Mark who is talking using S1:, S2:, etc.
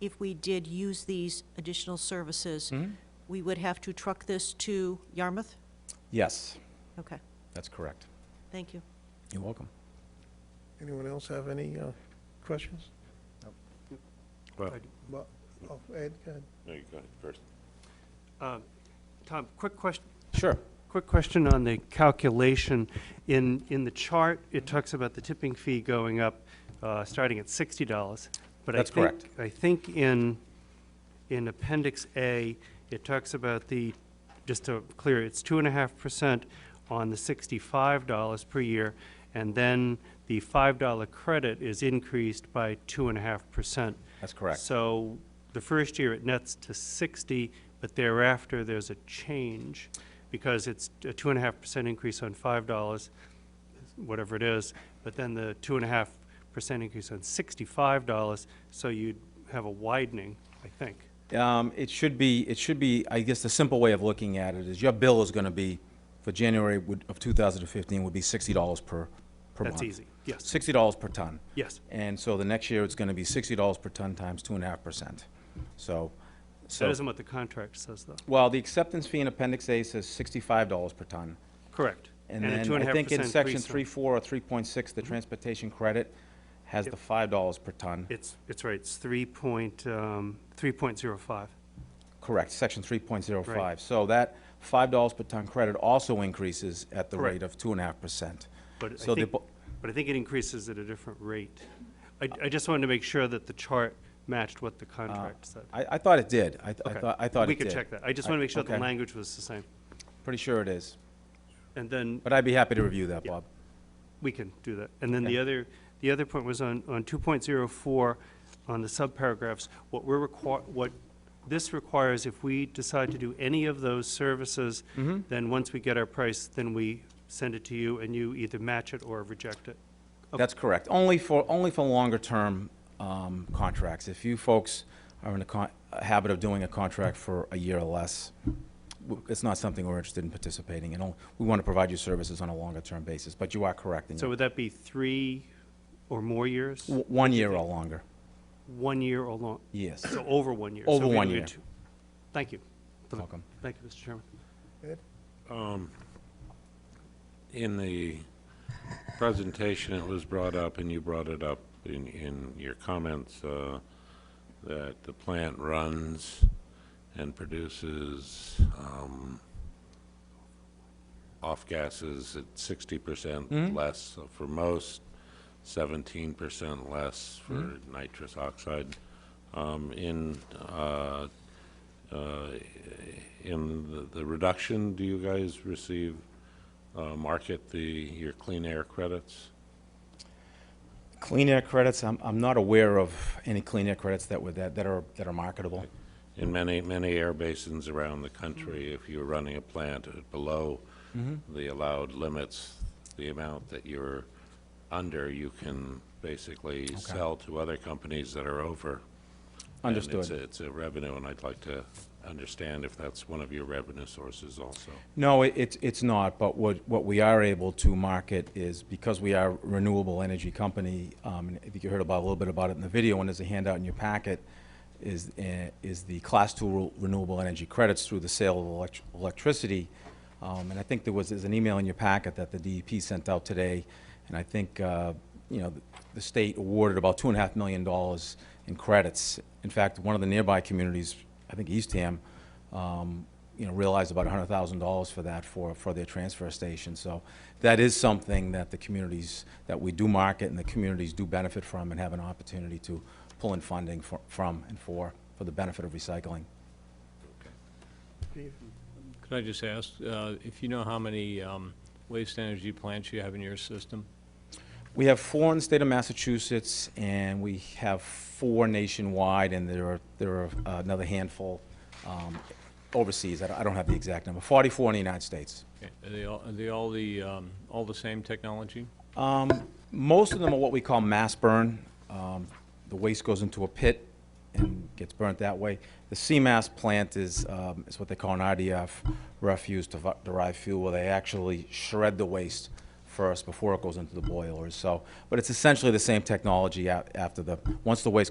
S1: if we did use these additional services, we would have to truck this to Yarmouth?
S2: Yes,
S1: Okay,
S2: that's correct.
S1: thank you.
S2: You're welcome.
S3: Anyone else have any uh, questions?
S4: Well,
S3: Well, oh, Ed, go ahead.
S5: No, you go ahead first.
S4: Tom, quick question,
S2: Sure.
S4: quick question on the calculation. In, in the chart, it talks about the tipping fee going up, uh, starting at sixty dollars.
S2: That's correct.
S4: I think in, in Appendix A, it talks about the, just to clear, it's two and a half percent on the sixty-five dollars per year, and then the five-dollar credit is increased by two and a half percent.
S2: That's correct.
S4: So the first year it nets to 60, but thereafter there's a change because it's a two and a half percent increase on five dollars, whatever it is, but then the two and a half percent increase on sixty-five dollars, so you'd have a widening, I think.
S2: Um, It should be, it should be, I guess the simple way of looking at it is your bill is going to be, for January would- of 2015, would be $60 per, per month.
S4: That's easy, yes,
S2: $60 per ton.
S4: yes,
S2: And so the next year, it's going to be $60 per ton times 2.5%. So,
S4: that
S2: so,
S4: isn't what the contract says, though,
S2: well, the acceptance fee in Appendix A says $65 per ton.
S4: correct.
S2: And
S4: a two
S2: then
S4: and
S2: I
S4: a half
S2: think in
S4: percent
S2: Section
S4: increase Mm-hmm.
S2: 3.4 or
S4: on-
S2: 3.6, the transportation credit has the $5 per ton.
S4: It's, it's right, it's three point, um, three point zero five,
S2: Correct, section three point zero
S4: Right.
S2: five. So that five dollars per ton credit also increases at the
S4: Correct.
S2: rate of two and a half percent.
S4: but I
S2: So the
S4: think,
S2: bo-
S4: but I think it increases at a different rate. I, I just wanted to make sure that the chart matched what the contract said.
S2: Uh, I, I thought it did. I, th- I
S4: Okay.
S2: thought, I thought it
S4: We
S2: did.
S4: could check that, I just want to make sure the
S2: okay.
S4: language was the same,
S2: Pretty sure it is.
S4: and then
S2: But I'd be happy to review that,
S4: Yeah.
S2: Bob.
S4: we can do that. And then the other, the other point was on, on two point zero four, on the subparagraphs, what we're require, what this requires, if we decide to do any of those services,
S2: Mm-hmm.
S4: then once we get our price, then we send it to you, and you either match it or reject it.
S2: That's correct. Only for, only for longer-term um, contracts. If you folks are in the con- a habit of doing a contract for a year or less, w- it's not something we're interested in participating in. Only- We want to provide you services on a longer-term basis, but you are correct. in
S4: So
S2: your-
S4: would that be three or more years?
S2: w- One year or longer,
S4: One year or long?
S2: yes.
S4: So over one year.
S2: Over
S4: So we
S2: one
S4: do
S2: year.
S4: two. Thank you. for the-
S2: Welcome.
S4: Thank you, Mr. Chairman.
S5: In the presentation, it was brought up, and you brought it up in, in your comments, uh, that the plant runs and produces um, off gases at sixty percent less for most, seventeen percent less for nitrous oxide. Um, In uh, uh, in the- the reduction, do you guys receive, uh, market the, your clean air credits?
S2: Clean air credits, I'm, I'm not aware of any clean air credits that were, that, that are, that are marketable.
S5: In many, many air basins around the country, if you're running a plant at below the allowed limits, the amount that you're under, you can basically sell to other companies that are over. And it's
S2: Understood.
S5: a- it's a revenue, and I'd like to understand if that's one of your revenue sources also.
S2: No, it, it's, it's not, but what, what we are able to market is, because we are a renewable energy company, um, and I think you heard about, a little bit about it in the video, and there's a handout in your packet, is, eh, is the Class Two renewable energy credits through the sale of elect- electricity. Um, and I think there was, there's an email in your packet that the DEP sent out today, and I think, uh, you know, the- the state awarded about two and a half million dollars in credits. In fact, one of the nearby communities, I think Eastham, um, you know, realized about hundred thousand dollars for that for, for their transfer station. So that is something that the communities, that we do market and the communities do benefit from and have an opportunity to pull in funding for, from and for, for the benefit of recycling.
S3: Steve?
S6: Could I just ask, uh, if you know how many um, waste energy plants you have in your system?
S2: We have four in the state of Massachusetts and we have four nationwide and there are, there are uh, another handful, um, overseas. I don't- I don't have the exact number, forty-four in the United States.
S6: Okay, eh, Are they all, are they all the, um, all the same technology?
S2: Um, most of them are what we call mass burn. Um, the waste goes into a pit and gets burnt that way. The CMAS plant is, um, is what they call an RDF, refuse to fu- derived fuel, where they actually shred the waste first before it goes into the boilers. So, but it's essentially the same technology a- after the, once the waste